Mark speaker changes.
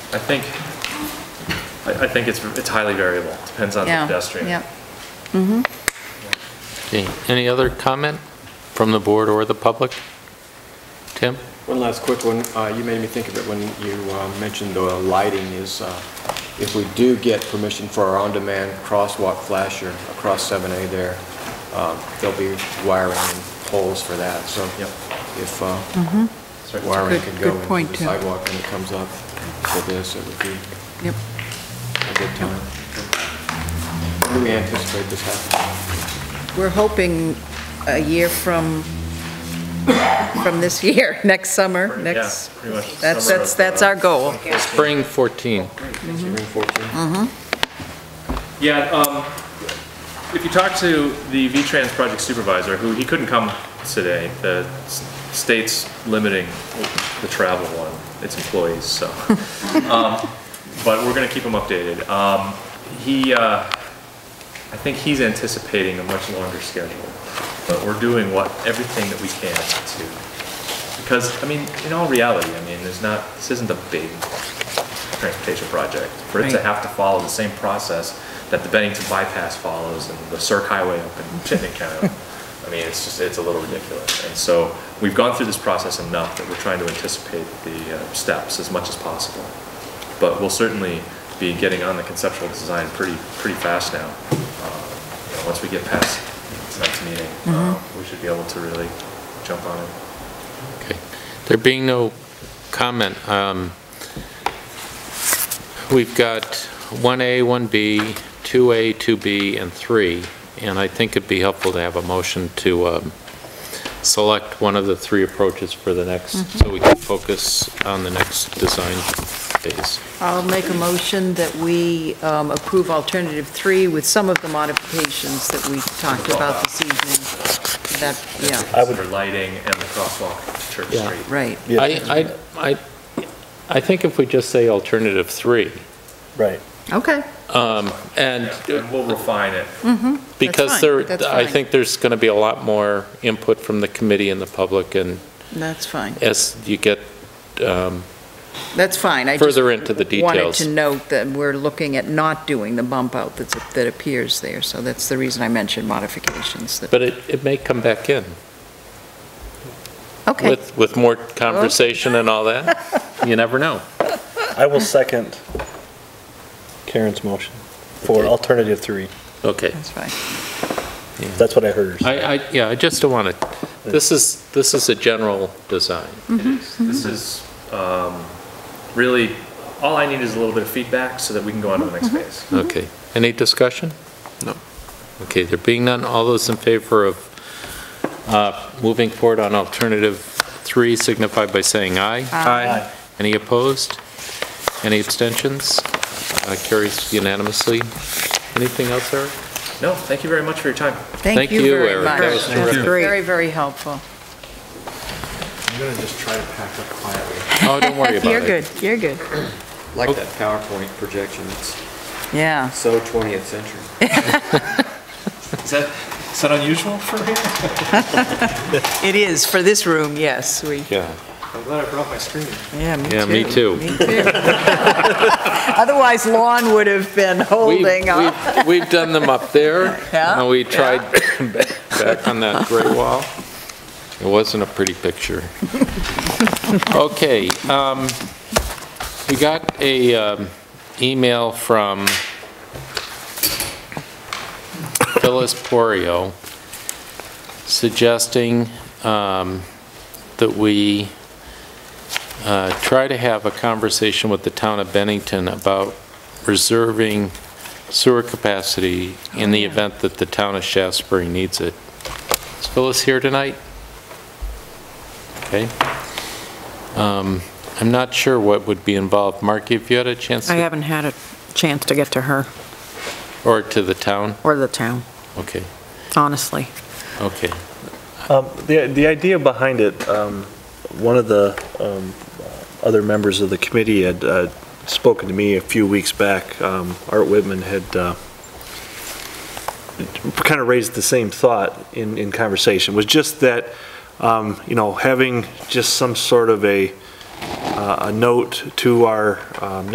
Speaker 1: I think, I, I think it's, it's highly variable, depends on the
Speaker 2: Yeah,
Speaker 1: pedestrian.
Speaker 2: Yep.
Speaker 3: Okay, any other comment from the board or the public? Tim?
Speaker 4: One last quick one. Uh, You made me think of it when you uh, mentioned the lighting is, uh, if we do get permission for our on-demand crosswalk flasher across 7A there, um, there'll be wiring and poles for that, so
Speaker 1: Yep.
Speaker 4: if uh,
Speaker 1: Sorry.
Speaker 4: wiring
Speaker 2: Mm-hmm. Good-
Speaker 4: can
Speaker 2: good
Speaker 4: go
Speaker 2: point,
Speaker 4: into the
Speaker 2: too.
Speaker 4: sidewalk when it comes up for this, it would be a
Speaker 2: Yep.
Speaker 4: good time. When Do we anticipate this happening?
Speaker 2: We're hoping a year from, from this year, next summer,
Speaker 1: Yeah,
Speaker 2: next.
Speaker 1: pretty much the
Speaker 2: That's,
Speaker 1: summer
Speaker 2: that's,
Speaker 1: of, uh,
Speaker 2: that's our goal.
Speaker 3: Spring 14.
Speaker 2: Mm-hmm.
Speaker 4: Spring 14?
Speaker 1: Yeah, um, if you talk to the V-Trans project supervisor, who, he couldn't come today, the s- state's limiting the travel on its employees, so. Um, But we're gonna keep him updated. Um, he, uh, I think he's anticipating a much longer schedule, but we're doing what, everything that we can to, because, I mean, in all reality, I mean, there's not, this isn't a big transportation project, for it to
Speaker 2: Right.
Speaker 1: have to follow the same process that the Bennington bypass follows and the Cirque Highway up in Chittenden County. I mean, it's just, it's a little ridiculous. And so we've gone through this process enough that we're trying to anticipate the uh, steps as much as possible. But we'll certainly be getting on the conceptual design pretty, pretty fast now. Uh, you know, Once we get past tonight's meeting, uh, we should be able to really jump on it.
Speaker 3: Okay. There being no comment, um, we've got 1A, 1B, 2A, 2B, and 3, and I think it'd be helpful to have a motion to um, select one of the three approaches for the next, so we can focus on the next design phase.
Speaker 2: I'll make a motion that we um, approve alternative three with some of the modifications that we talked about this evening. That, yeah,
Speaker 1: I would. For lighting and the crosswalk to Church
Speaker 3: Yeah.
Speaker 1: Street.
Speaker 2: right.
Speaker 3: I, I, I- I think if we just say alternative 3,
Speaker 5: Right.
Speaker 2: Okay,
Speaker 3: um, and
Speaker 1: And we'll refine it.
Speaker 2: Mm-hmm.
Speaker 3: Because
Speaker 2: fine.
Speaker 3: there,
Speaker 2: That's
Speaker 3: I
Speaker 2: fine.
Speaker 3: think there's going to be a lot more input from the committee and the public, and
Speaker 2: that's fine.
Speaker 3: as you get um,
Speaker 2: That's fine. I just
Speaker 3: further into the
Speaker 2: wanted to
Speaker 3: details.
Speaker 2: note that we're looking at not doing the bump out that's, that appears there. So that's the reason I mentioned modifications. that-
Speaker 3: But it, it may come back in
Speaker 2: Okay,
Speaker 3: with, with more conversation and all that. You never know.
Speaker 5: I will second Karen's motion for
Speaker 3: Okay.
Speaker 5: alternative three.
Speaker 3: Okay.
Speaker 2: that's fine.
Speaker 5: That's what I heard her say.
Speaker 3: I, I, yeah, I just don't want to, this is, this is a general design.
Speaker 1: It is. This is um, really, all I need is a little bit of feedback so that we can go on to the next phase.
Speaker 3: Okay. Any discussion? Mm-hmm. No. Okay, there being none, all those in favor of uh, moving forward on alternative three signify by saying aye.
Speaker 5: Aye.
Speaker 3: Any opposed? Any abstentions? Uh, Carries unanimously. Anything else, Eric?
Speaker 1: No, thank you very much for your time.
Speaker 3: Thank
Speaker 2: Thank you
Speaker 3: you,
Speaker 2: very
Speaker 3: Eric.
Speaker 2: much.
Speaker 3: That was
Speaker 2: That's
Speaker 3: terrific.
Speaker 2: very, very helpful.
Speaker 4: I'm going to just try to pack up quietly.
Speaker 3: Oh, don't worry about it.
Speaker 2: you're good.
Speaker 4: Like that PowerPoint projection, it's
Speaker 2: Yeah.
Speaker 4: so 20th century.
Speaker 1: Is that, is that unusual for me?
Speaker 2: It is, for this room, yes, we,
Speaker 3: Yeah,
Speaker 4: I'm glad I brought my screen.
Speaker 2: yeah, me too.
Speaker 3: Yeah, me too.
Speaker 2: Me too. Otherwise, Lon would have been
Speaker 3: We've-
Speaker 2: holding up.
Speaker 3: we've- We've done them up there.
Speaker 2: Yeah,
Speaker 3: And we tried back on that gray wall. It wasn't a pretty picture. Okay, um, we got a um, email from Phyllis Porio suggesting um, that we uh, try to have a conversation with the town of Bennington about reserving sewer capacity in the event that the town of Shaftesbury needs it. Is Phyllis here tonight? Okay. Um, I'm not sure what would be involved. Mark, if you had a chance,
Speaker 6: I
Speaker 3: to-
Speaker 6: haven't had a chance to get to her
Speaker 3: or to the town?
Speaker 6: or the town,
Speaker 3: Okay,
Speaker 6: honestly.
Speaker 3: okay.
Speaker 5: Um, The, the idea behind it, um, one of the um, other members of the committee had uh, spoken to me a few weeks back. Um, Art Whitman had kind of raised the same thought in, in conversation, was just that, um, you know, having just some sort of a, uh, a note to our um,